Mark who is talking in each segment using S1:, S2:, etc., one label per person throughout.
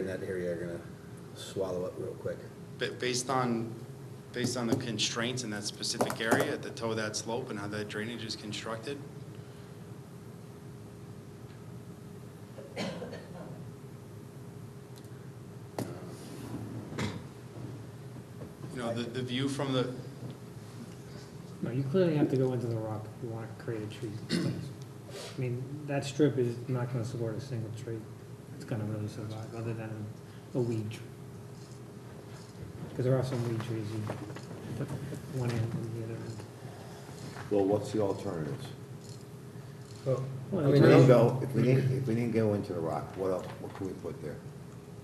S1: in that area are gonna swallow up real quick.
S2: Ba- Based on, based on the constraints in that specific area, at the toe of that slope and how that drainage is constructed, you know, the, the view from the,
S3: No, you clearly have to go into the rock if you want to create a tree place. I mean, that strip is not gonna support a single tree. It's gonna really survive, other than a weed tree. Because there are some weed trees you put one end and the other end.
S4: Well, what's the alternatives?
S3: Well,
S4: If we
S3: the
S4: didn't
S3: tree-
S4: go, if we didn't, if we didn't go into the rock, what else, what could we put there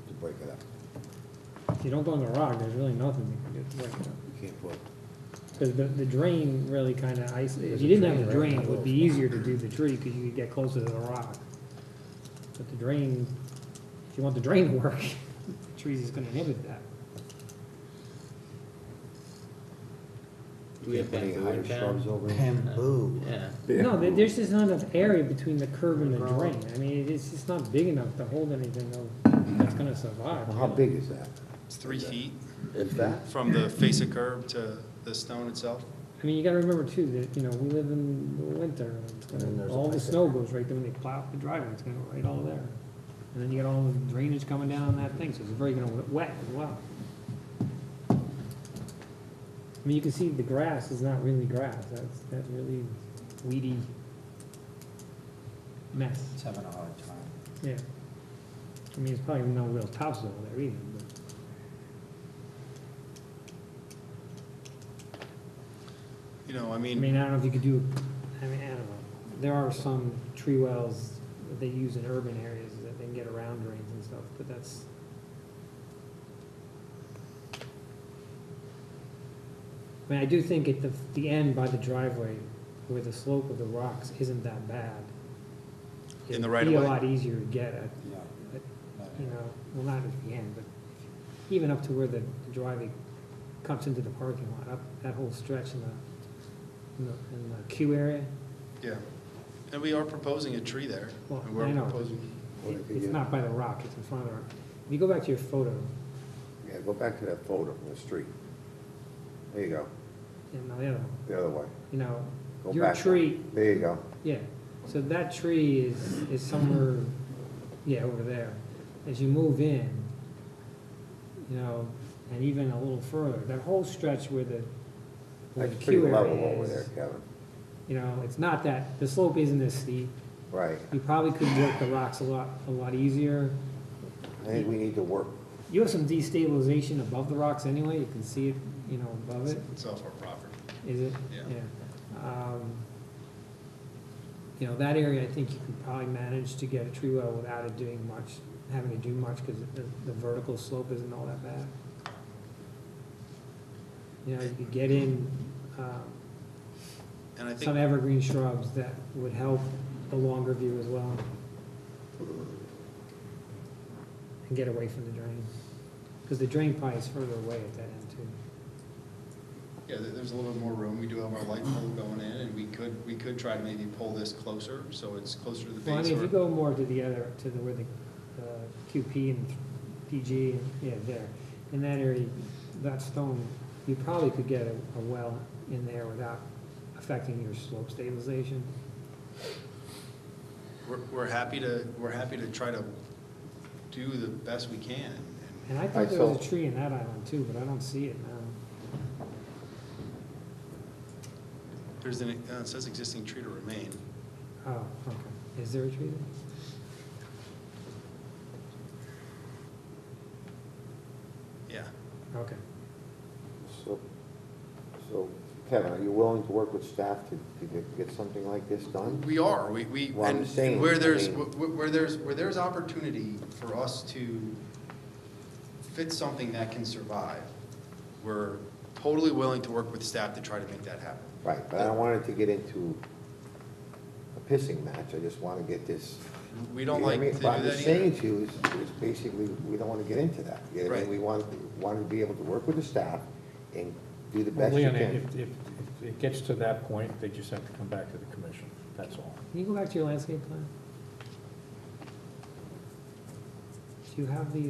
S4: to break it up?
S3: If you don't go in the rock, there's really nothing you can do to break it up.
S4: We can't put,
S3: Because the, the drain really kind of isolates,
S1: There's
S3: if
S1: a
S3: you didn't have
S1: drain
S3: the
S1: right
S3: drain,
S1: in
S3: it
S1: the
S3: would be easier to do the tree because you could get closer to the rock. But the drain, if you want the drain to work, the trees is gonna inhibit that.
S4: we can't put any higher shrubs over it?
S5: Bamboo.
S6: Yeah.
S3: No, there- there's just not enough area between the curb and the drain. I mean, it's just not big enough to hold anything though that's gonna survive.
S4: Well, how big is that?
S2: it's three feet
S4: Is that?
S2: from the face of curb to the stone itself.
S3: I mean, you gotta remember too, that, you know, we live in the winter, and it's
S1: And
S3: gonna,
S1: there's a
S3: all the
S1: pipe
S3: snow goes right there when they plow up the driveway, it's gonna go right all there. And then you got all the drainage coming down on that thing, so it's very gonna wet- wet as well. I mean, you can see the grass is not really grass, that's, that really weedy mess,
S5: It's having a hard time.
S3: yeah. I mean, it's probably no real tops over there either, but.
S2: You know, I
S3: I
S2: mean,
S3: mean, I don't know if you could do, I mean, I don't know. There are some tree wells that they use in urban areas that they can get around drains and stuff, but that's. I mean, I do think at the, the end by the driveway, where the slope of the rocks isn't that bad.
S2: In the right of
S3: It'd be
S2: way?
S3: a lot easier to get at,
S5: Yeah.
S3: But,
S5: No,
S3: you
S5: no.
S3: know, well, not at the end, but even up to where the the driveway comes into the parking lot, up that whole stretch in the, in the- in the queue area,
S2: yeah. And we are proposing a tree there.
S3: Well,
S2: and we're
S3: I know.
S2: proposing-
S4: Well,
S3: it-
S4: if you
S3: it's
S4: get-
S3: not by the rock, it's in front of the rock. If you go back to your photo,
S4: Yeah, go back to that photo from the street. There you go,
S3: and the other one,
S4: the other way.
S3: you know,
S4: Go
S3: your
S4: back one.
S3: tree,
S4: There you go.
S3: yeah, so that tree is, is somewhere, yeah, over there. As you move in, you know, and even a little further, that whole stretch where the, where the
S4: That's pretty
S3: queue
S4: level over
S3: area
S4: there,
S3: is,
S4: Kevin.
S3: you know, it's not that, the slope isn't as steep.
S4: Right.
S3: You probably could work the rocks a lot, a lot easier.
S4: I think we need to work,
S3: You have some destabilization above the rocks anyway, you can see it, you know, above it,
S2: It's off our property.
S3: is it?
S2: Yeah.
S3: Um, You know, that area, I think you could probably manage to get a tree well without it doing much, having to do much, because the, the vertical slope isn't all that bad. You know, you could get in, um,
S2: And I think.
S3: some evergreen shrubs that would help the longer view as well. And get away from the drain, because the drain probably is further away at that end too.
S2: Yeah, there- there's a little bit more room. We do have our light pole going in, and we could, we could try to maybe pull this closer, so it's closer to the
S3: Well, I
S2: base.
S3: mean, if you
S2: or-
S3: go more to the other, to the, where the uh, QP and PG, and yeah, there, in that area, that stone, you probably could get a, a well in there without affecting your slope stabilization.
S2: We're, we're happy to, we're happy to try to do the best we can. and-
S3: And I
S4: Alright,
S3: thought there was a
S4: so-
S3: tree in that island too, but I don't see it now.
S2: There's an, uh, it says existing tree to remain.
S3: Oh, okay. Is there a tree there?
S2: Yeah,
S3: Okay.
S4: so, so Kevin, are you willing to work with staff to, to get- get something like this done?
S2: we are, we, we,
S4: Well, I'm
S2: and
S4: saying,
S2: and where
S4: I
S2: there's,
S4: mean-
S2: where where there's, where there's opportunity for us to fit something that can survive, we're totally willing to work with staff to try to make that happen.
S4: Right, but I don't want it to get into a pissing match, I just wanna get this.
S2: We don't
S4: You know what
S2: like
S4: I
S2: to
S4: mean?
S2: do
S4: What I'm
S2: that either.
S4: saying to you is, is basically, we don't wanna get into that, you know what I mean?
S2: Right.
S4: We want, want to be able to work with the staff and do the
S7: Well,
S4: best you
S7: Leon,
S4: can.
S7: if, if if it gets to that point, they just have to come back to the commission, that's all.
S3: Can you go back to your landscape plan? Do you have the